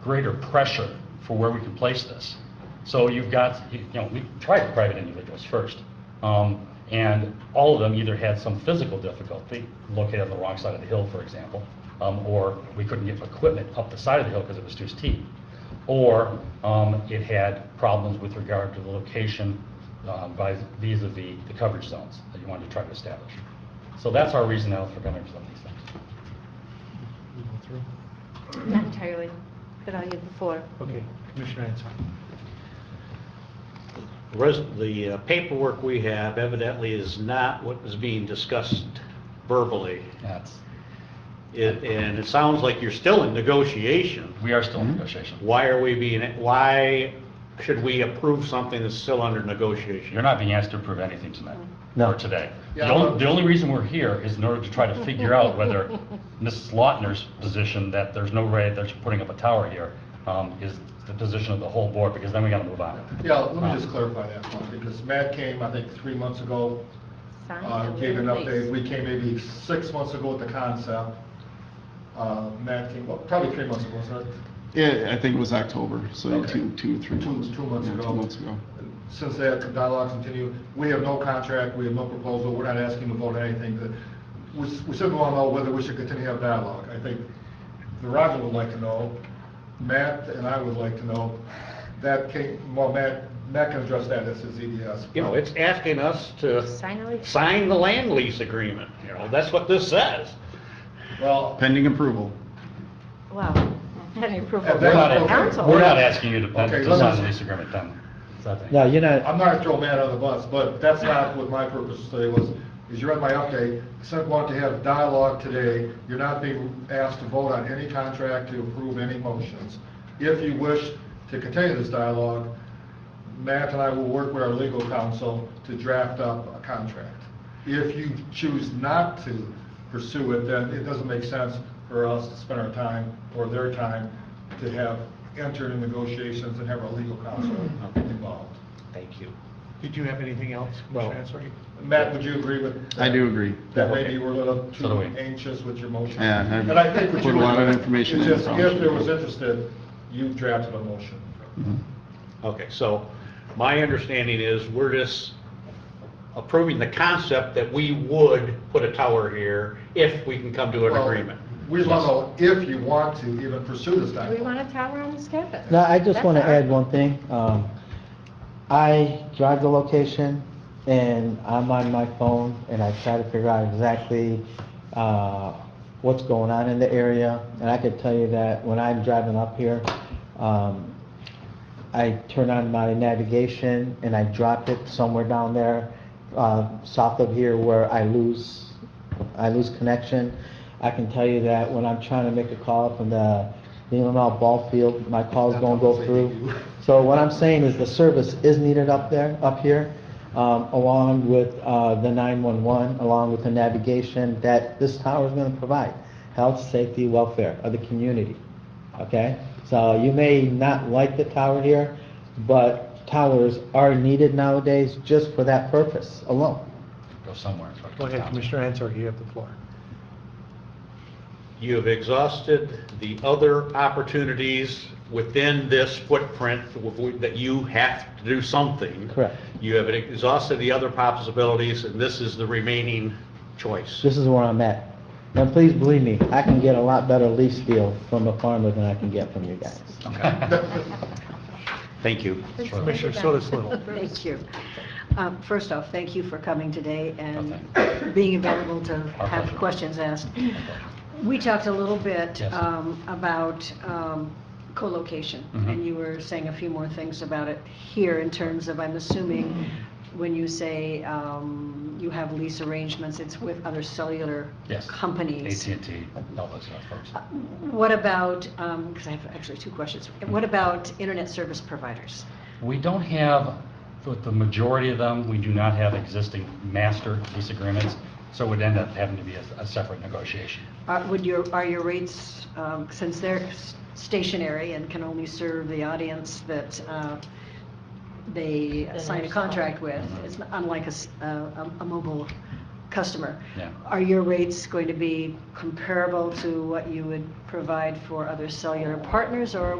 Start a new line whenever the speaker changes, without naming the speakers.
greater pressure for where we could place this. So you've got, you know, we tried private individuals first, um, and all of them either had some physical difficulty, located on the wrong side of the hill, for example, um, or we couldn't get equipment up the side of the hill because it was too steep, or um, it had problems with regard to the location uh, by- vis-à-vis the coverage zones that you wanted to try to establish. So that's our reasonable for coming up with some of these things.
Not entirely, but I'll yield the floor.
Okay, Commissioner Ansel.
Res- The uh, paperwork we have evidently is not what is being discussed verbally.
That's,
It- And it sounds like you're still in negotiation.
we are still in negotiation.
Why are we being, why should we approve something that's still under negotiation?
You're not being asked to approve anything tonight,
No.
or today. The only, the only reason we're here is in order to try to figure out whether Mrs. Lautner's position that there's no way that she's putting up a tower here um, is the position of the whole board, because then we gotta move on.
Yeah, let me just clarify that one, because Matt came, I think, three months ago,
Sign
uh,
and
gave an
release.
update. We came maybe six months ago with the concept. Uh, Matt came, well, probably three months ago, wasn't it?
Yeah, I think it was October, so
Okay.
two, two or three
Two-
months.
two months
Yeah,
ago.
Two months ago.
Since that dialogue continued, we have no contract, we have no proposal, we're not asking to vote on anything. The- We s- we simply want to know whether we should continue to have dialogue. I think the Roger would like to know, Matt and I would like to know, that came, well, Matt, Matt can address that, as his E EDS.
You know, it's asking us to
Sign and release.
sign the land lease agreement, you know, that's what this says.
Well,
Pending approval.
Well, pending approval
At
of
We're not,
the
okay.
council.
we're not asking you to
Okay,
to
let's-
sign the lease agreement, then. It's not that-
No, you're not,
I'm not gonna throw Matt on the bus, but that's not what my purpose today was, is you read my update, I said I wanted to have dialogue today, you're not being asked to vote on any contract, to approve any motions. If you wish to continue this dialogue, Matt and I will work with our legal counsel to draft up a contract. If you choose not to pursue it, then it doesn't make sense for us to spend our time or their time to have entered in negotiations and have our legal counsel involved.
Thank you.
Did you have anything else,
No.
Commissioner Ansel?
Matt, would you agree with?
I do agree.
That maybe you were a little
So do
too
we.
anxious with your motion?
Yeah, I
And I think what
put
you
a lot
were
of
doing
information
is
in,
just
probably
If there
should.
was interested, you drafted a motion.
Okay, so my understanding is we're just approving the concept that we would put a tower here if we can come to an
Well,
agreement.
We want to know if you want to even pursue this
We want
dialogue.
a tower on this campus.
no, I just
That's
want to
all.
add one thing. Um, I drive the location and I'm on my phone and I try to figure out exactly, uh, what's going on in the area. And I could tell you that when I'm driving up here, um, I turn on my navigation and I drop it somewhere down there, uh, south of here where I lose, I lose connection. I can tell you that when I'm trying to make a call from the Neelanau ball field, my call's gonna go through. So what I'm saying is the service is needed up there, up here, um, along with, uh, the nine-one-one, along with the navigation that this tower is gonna provide. Health, safety, welfare of the community okay? So you may not like the tower here, but towers are needed nowadays just for that purpose alone.
Go somewhere. and try to
Go ahead,
down.
Commissioner Ansel, you have the floor.
You have exhausted the other opportunities within this footprint that you have to do something.
Correct.
You have exhausted the other possibilities, and this is the remaining choice.
This is where I'm at. And please believe me, I can get a lot better lease deal from a farmer than I can get from you guys.
Thank you.
Commissioner Solis Little.
Thank you. Um, First off, thank you for coming today and
Oh,
being available to
Our
have
pleasure.
questions asked. We talked a little bit
Yes.
um, about um, co-location,
Mhm.
and you were saying a few more things about it here in terms of, I'm assuming, when you say um, you have lease arrangements, it's with other cellular
Yes.
companies.
AT&T, all those kind of folks.
What about, because I have actually two questions, what about internet service providers?
We don't have, with the majority of them, we do not have existing master lease agreements, so it would end up having to be a a separate negotiation.
Are- Uh, Would your, are your rates, um, since they're s- stationary and can only serve the audience that uh, they
Then
sign a
there's-
contract with,
Mhm.
it's unlike a s- a, a- a mobile customer?
Yeah.
Are your rates going to be comparable to what you would provide for other cellular partners, or